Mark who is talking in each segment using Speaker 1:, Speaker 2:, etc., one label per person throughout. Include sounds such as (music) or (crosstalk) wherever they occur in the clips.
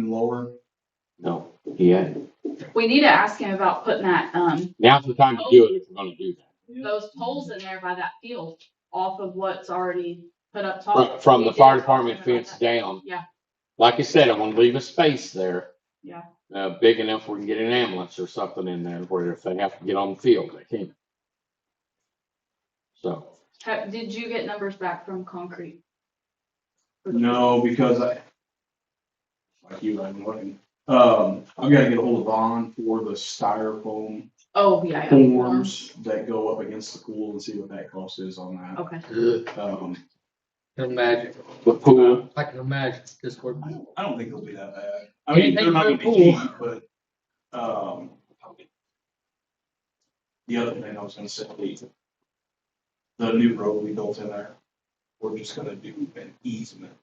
Speaker 1: even lower?
Speaker 2: No, yeah,
Speaker 3: We need to ask him about putting that, um,
Speaker 2: now's the time to do it if we're gonna do that.
Speaker 3: those poles in there by that field off of what's already put up
Speaker 2: From,
Speaker 3: top.
Speaker 2: from the
Speaker 3: We did
Speaker 2: fire
Speaker 3: talk to him
Speaker 2: department
Speaker 3: about
Speaker 2: fence
Speaker 3: that.
Speaker 2: down.
Speaker 3: Oh, Yeah.
Speaker 2: Like I said, I wanna leave a space there.
Speaker 3: Yeah.
Speaker 2: Uh, big enough we can get an ambulance or something in there where if they have to get on the field, they can. So,
Speaker 3: Ha- Did you get numbers back from concrete? For the-
Speaker 1: No, because I, like you, I'm looking, um, I've gotta get a hold of Vaughn for the styrofoam
Speaker 3: Oh, yeah. yeah.
Speaker 1: forms that go up against the pool and see what that cost is on that.
Speaker 3: Okay.
Speaker 4: Ugh,
Speaker 1: Um,
Speaker 4: I Can imagine,
Speaker 2: the pool,
Speaker 4: I can imagine this work.
Speaker 1: I don't, I don't think it'll be that bad. I mean,
Speaker 4: Anything
Speaker 1: they're not
Speaker 4: for
Speaker 1: gonna be
Speaker 4: a
Speaker 1: cheap, but, um, the other thing I was gonna say, the, the new road we built in there, we're just gonna do an easement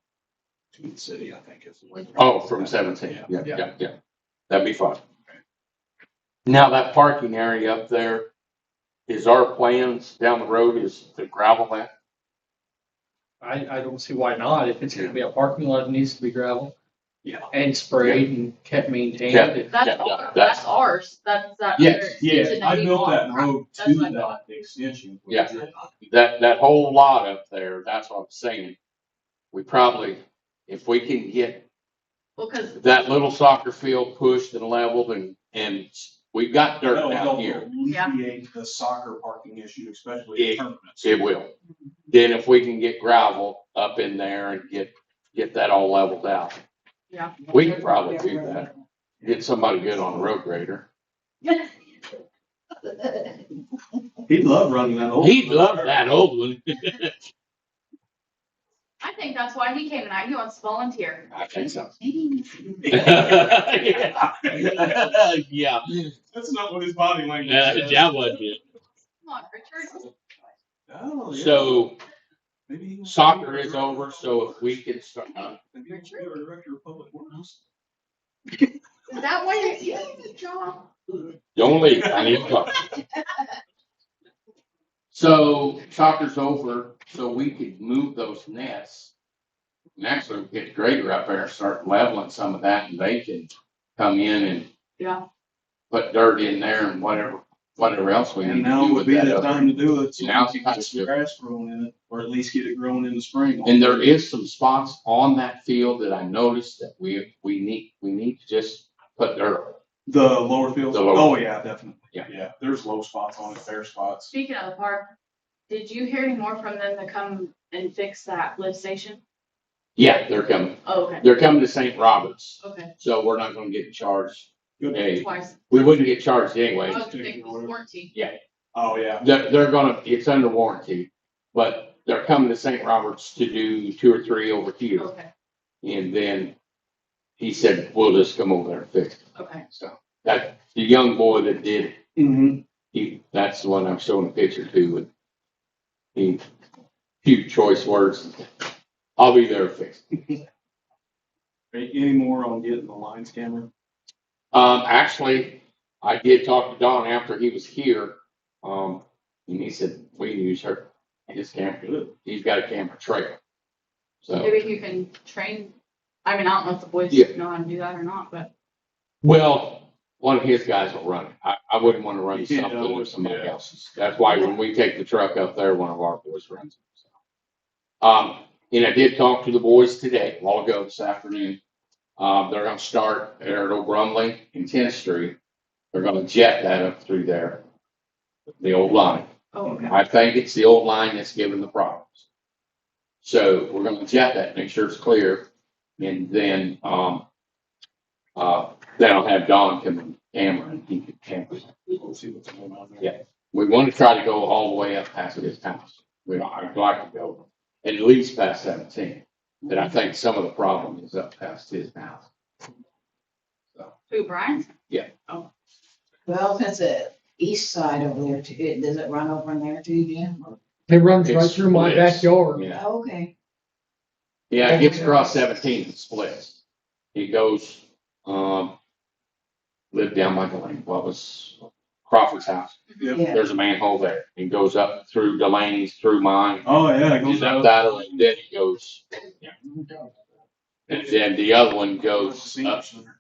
Speaker 1: to the city, I think is. the way-
Speaker 2: oh, from seventeen,
Speaker 1: Yeah.
Speaker 2: yeah, yeah, yeah, that'd be fine. Now, that parking area up there, is our plans down the road is to gravel that?
Speaker 4: I, I don't see why not, if it's gonna be a parking lot, it needs to be gravel.
Speaker 1: Yeah.
Speaker 4: And sprayed and kept maintained.
Speaker 2: Yeah.
Speaker 4: and-
Speaker 2: Yeah,
Speaker 3: That's
Speaker 2: yeah,
Speaker 3: ours,
Speaker 2: that's-
Speaker 3: that's ours, that's that.
Speaker 2: Yes,
Speaker 3: other extension
Speaker 1: Yeah, I
Speaker 3: we
Speaker 1: built
Speaker 3: bought.
Speaker 1: that road to
Speaker 3: That's what I
Speaker 1: that
Speaker 3: thought.
Speaker 1: extension. which
Speaker 2: Yeah.
Speaker 1: is-
Speaker 2: that, that whole lot up there, that's what I'm saying. We probably, if we can get
Speaker 3: Well, cause (laughs)
Speaker 2: that little soccer field pushed and leveled and, and we've got dirt
Speaker 1: That'll
Speaker 2: down
Speaker 1: help
Speaker 2: here,
Speaker 3: Yeah.
Speaker 1: Alleviate the soccer parking issue, especially in
Speaker 2: Yeah.
Speaker 1: tournaments.
Speaker 2: it will. Then if we can get gravel up in there and get, get that all leveled out,
Speaker 3: Yeah.
Speaker 2: we can probably do that. Get somebody good on a road grader.
Speaker 1: He'd love running that old.
Speaker 2: He'd love
Speaker 1: (laughs)
Speaker 2: that old one.
Speaker 3: I think that's why he came tonight. He wants to volunteer.
Speaker 2: I think so.
Speaker 1: That's
Speaker 2: (laughs) Yeah, yeah,
Speaker 1: not what his body language says.
Speaker 2: that was it.
Speaker 3: Come on, Richard.
Speaker 1: Oh, yeah.
Speaker 2: So
Speaker 1: Maybe he was-
Speaker 2: soccer is over, so if we can start, uh, huh?
Speaker 1: Maybe he was the Director of Public Works.
Speaker 3: Is that why you're doing the job?
Speaker 2: Don't leave, I need to talk. So soccer's over, so we could move those nets. Next, we'll get the grader up there, and start leveling some of that and they can come in and
Speaker 3: Yeah,
Speaker 2: put dirt in there and whatever, whatever else we
Speaker 1: And
Speaker 2: need to
Speaker 1: now
Speaker 2: do
Speaker 1: would
Speaker 2: with
Speaker 1: be
Speaker 2: that.
Speaker 1: the
Speaker 2: other-
Speaker 1: time to do it. so we
Speaker 2: Now's
Speaker 1: can
Speaker 2: the time
Speaker 1: get
Speaker 2: to do
Speaker 1: some
Speaker 2: it.
Speaker 1: Grass growing in it, or at least get it growing in the spring.
Speaker 2: And there is some spots on that field that I noticed that we, we need, we need to just put dirt.
Speaker 1: The lower field,
Speaker 2: The lower-
Speaker 1: oh, yeah, definitely.
Speaker 2: Yeah.
Speaker 1: Yeah, there's low spots on it, fair spots.
Speaker 3: speaking of the park, did you hear any more from them to come and fix that lift station?
Speaker 2: Yeah, they're coming,
Speaker 3: Oh, okay,
Speaker 2: they're coming to St. Roberts,
Speaker 3: okay,
Speaker 2: so we're not gonna get charged.
Speaker 1: Good.
Speaker 2: Hey,
Speaker 3: twice. Oh,
Speaker 2: we wouldn't get charged
Speaker 3: I
Speaker 2: anyway.
Speaker 3: was thinking it was warranty.
Speaker 1: Oh, yeah.
Speaker 2: They're, they're gonna, it's under warranty, but they're coming to St. Roberts to do two or three over here.
Speaker 3: Okay,
Speaker 2: And then he said, we'll just come over there and fix it.
Speaker 3: okay.
Speaker 2: So that, the young boy that did, it,
Speaker 1: Mhm.
Speaker 2: he, that's the one I'm showing a picture to with he, few choice words. I'll be there to fix it.
Speaker 1: Any any more on getting the lines camera?
Speaker 2: Um, actually, I did talk to Don after he was here. Um, and he said, we can use her, his camera.
Speaker 1: Good.
Speaker 2: He's got a camera trailer. So.
Speaker 3: Maybe you can train, I mean, I don't know if the boys
Speaker 2: Yeah.
Speaker 3: know how to do that or not, but
Speaker 2: Well, one of his guys will run it. I, I wouldn't want to run
Speaker 1: Yeah,
Speaker 2: something
Speaker 1: yeah.
Speaker 2: with somebody else's. That's why when we take the truck up there, one of our boys runs it. so. Um, and I did talk to the boys today, a while ago this afternoon. Um, they're gonna start there at Old Brumley and Tenth Street. They're gonna jet that up through there. The old line.
Speaker 3: Oh, okay.
Speaker 2: I think it's the old line that's giving the problems. So we're gonna jet that, make sure it's clear, and then, um, uh, then I'll have Don come and camera and he can camera.
Speaker 1: We'll see what's going on there.
Speaker 2: Yeah. We wanna try to go all the way up past his house. We, I'd like to go at least past seventeen, but I think some of the problem is up past his house.
Speaker 3: Who, Brian?
Speaker 5: Well, that's the east side over there too. It- Does it run over in there too, yeah?
Speaker 4: It runs right
Speaker 2: It's
Speaker 4: through my
Speaker 2: split.
Speaker 4: backyard.
Speaker 2: Yeah,
Speaker 5: Oh, Okay.
Speaker 2: yeah, it gets across seventeen and splits. It goes, um, lived down Michael Lane, what was Crawford's house.
Speaker 1: Yep.
Speaker 5: Yeah.
Speaker 2: there's a manhole there. It goes up through Delaney's, through mine,
Speaker 1: Oh, yeah, it goes
Speaker 2: goes up
Speaker 1: out.
Speaker 2: that, way, then it goes. And then the other one goes
Speaker 1: Senior
Speaker 2: up,
Speaker 1: center.